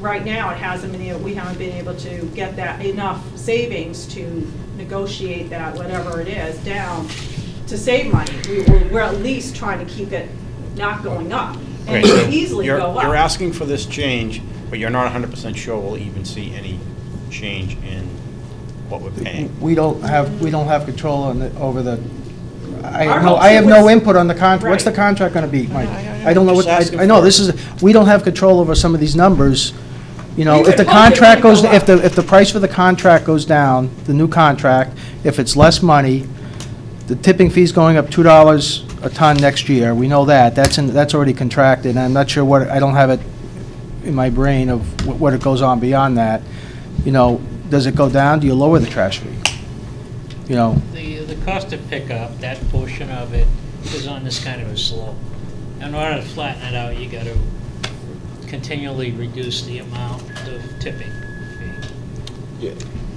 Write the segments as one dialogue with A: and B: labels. A: right now, it hasn't been, able- we haven't been able to get that enough savings to negotiate that, whatever it is, down to save money. We, we're- we're at least trying to keep it not going up. And
B: Okay,
A: it
B: so
A: could easily
B: you're-
A: go up.
B: You're asking for this change, but you're not 100% sure we'll even see any change in what we're paying.
C: We don't have, we don't have control on the, over the, I
A: Our
C: have no,
A: hope
C: I have no
A: was-
C: input on the contract. What's the
A: Right.
C: contract gonna be, Mike?
B: I- I-
C: I don't know
B: I'm
C: what,
B: just
C: I, I
B: asking
C: know,
B: for it.
C: this is, we don't have control over some of these numbers. You
A: You
C: know,
A: could
C: if the
A: hope it
C: contract
A: would
C: goes,
A: go
C: if the,
A: up.
C: if the price for the contract goes down, the new contract, if it's less money, the tipping fee's going up two dollars a ton next year, we know that, that's in, that's already contracted, and I'm not sure what, I don't have it in my brain of wh- what it goes on beyond that. You know, does it go down, do you lower the trash fee? You know,
D: The, the cost of pickup, that portion of it is on this kind of a slope. In order to flatten it out, you gotta continually reduce the amount of tipping fee.
E: Yeah.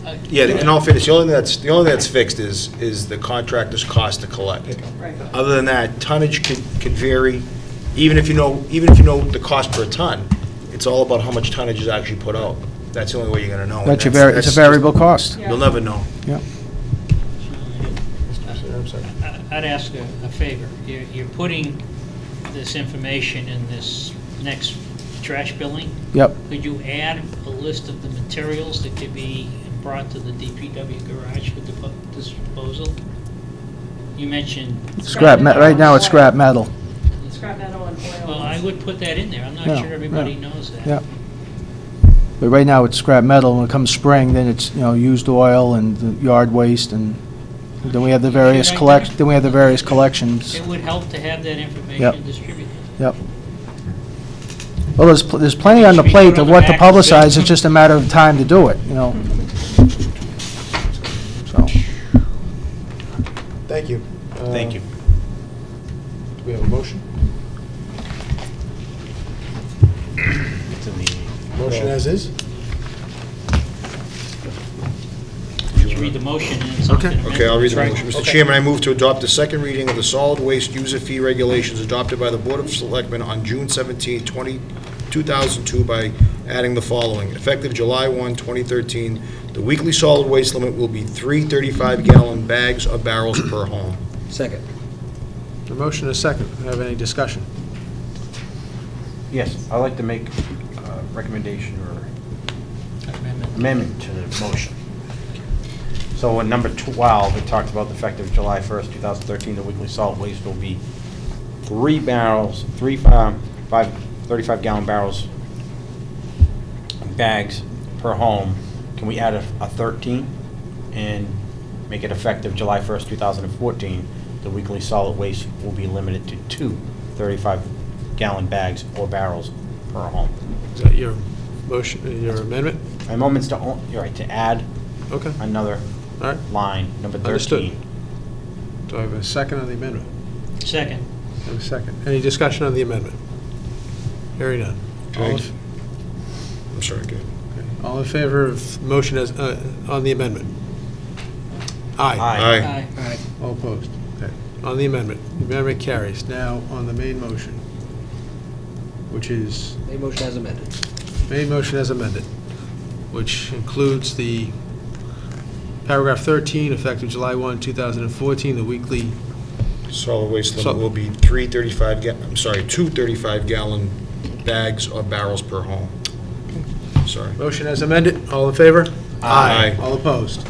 D: Uh,
E: Yeah, in all fairness, the only thing that's, the only thing that's fixed is, is the contractor's cost to collect.
A: Right.
E: Other than that, tonnage could, could vary, even if you know, even if you know the cost per ton, it's all about how much tonnage is actually put out. That's the only way you're gonna know. and
C: that's a vari, it's a
E: that's just-
C: variable cost.
E: You'll never know.
C: Yeah.
D: I- I'd ask a a favor. You're, you're putting this information in this next trash billing.
C: Yep,
D: Could you add a list of the materials that could be brought to the DPW garage for depo- disposal? You mentioned
C: scrap, me- right now it's scrap metal,
A: Scrap metal and oil.
D: Well, I would put that in there, I'm
C: Yeah,
D: not sure everybody knows that.
C: yeah. But right now it's scrap metal, when it comes spring, then it's, you know, used oil and the yard waste, and then we have the various
D: Right
C: collect,
D: there.
C: then we have the various collections.
D: It would help to have that
C: Yep.
D: information distributed.
C: Yep. Well, there's, pl- there's plenty on the
D: Should we
C: plate
D: put
C: of
D: on the
C: what to
D: back and say-
C: publicize, it's just a matter of time to do it, you know? So,
F: Thank you.
B: Thank you.
F: Uh, Do we have a motion?
B: It's in the-
F: Motion
E: Uh,
F: as is?
D: Just read the motion and it's something amended.
E: Okay, I'll read the
D: Right.
E: motion. Mr.
F: Okay.
E: Chairman, I move to adopt the second reading of the solid waste user fee regulations adopted by the Board of Selectmen on June 17, 20 2002 by adding the following. Effective July 1, 2013, the weekly solid waste limit will be three 35-gallon bags or barrels per home.
G: Second.
F: The motion is second. Do we Have any discussion?
B: Yes, I'd like to make a recommendation or
D: Amendment.
B: amendment to the motion. So in number 12, it talks about the effective July 1st, 2013, the weekly solid waste will be three barrels, three, um, five, 35-gallon barrels, bags per home. Can we add a a 13 and make it effective July 1st, 2014? The weekly solid waste will be limited to two 35-gallon bags or barrels per home.
F: Is that your motion, uh, your amendment?
B: My moment's to, o- you're right, to add
F: Okay, all
B: another
F: right.
B: line, number
F: Understood.
B: 13.
F: Do I have a second on the amendment?
D: Second.
F: I have a second. Any discussion on the amendment? Hearing none. All in-
E: Thank I'm sorry, go ahead.
F: okay. All in favor of motion as, uh, on the amendment? Aye.
B: Aye.
D: Aye.
F: All opposed? Okay. On the amendment. The amendment carries. Now, on the main motion, which is
G: They motion as amended.
F: Main motion as amended, which includes the paragraph 13, effective July 1, 2014, the weekly,
E: Solid waste
F: So-
E: limit will be three 35, ga- I'm sorry, two 35-gallon bags or barrels per home. Sorry.
F: motion as amended, all in favor?
E: Aye.
F: All opposed?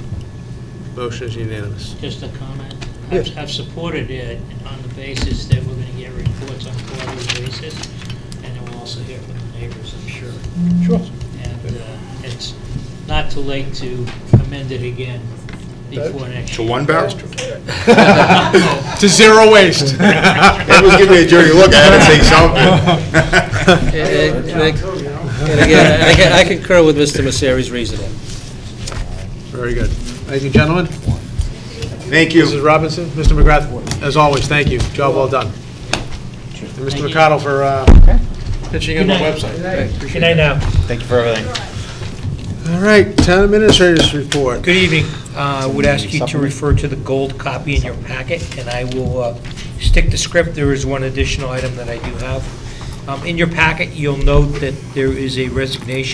F: Motion is unanimous.
D: Just a comment. I've-
F: Yes.
D: I've supported it on the basis that we're gonna get reports on a quarterly basis, and then we'll also hear from the neighbors, I'm sure.
F: Sure.
D: And uh, it's not too late to amend it again before next
E: To
D: year.
E: one barrel?
F: To zero waste.
E: Everyone's giving me a dirty look, I had to say
G: And
E: something.
G: and- and I- and again, I can- I concur with Mr. Messeri's reasoning.
F: Very good. Thank you, gentlemen.
E: Thank you.
F: Mrs. Robinson, Mr. McGrath, as always, thank you, job well done. And Mr.
D: you.
F: McConnell for uh, pitching in the
D: Good night.
F: website.
D: Good night now.
B: Thank you for everything.
F: All right, town administrators report.
H: Good evening. Uh, I would ask you to
B: Supplement?
H: refer to the gold copy in your packet, and I will uh, stick to script. There is one additional item that I do have. Um, In your packet, you'll note that there is a resignation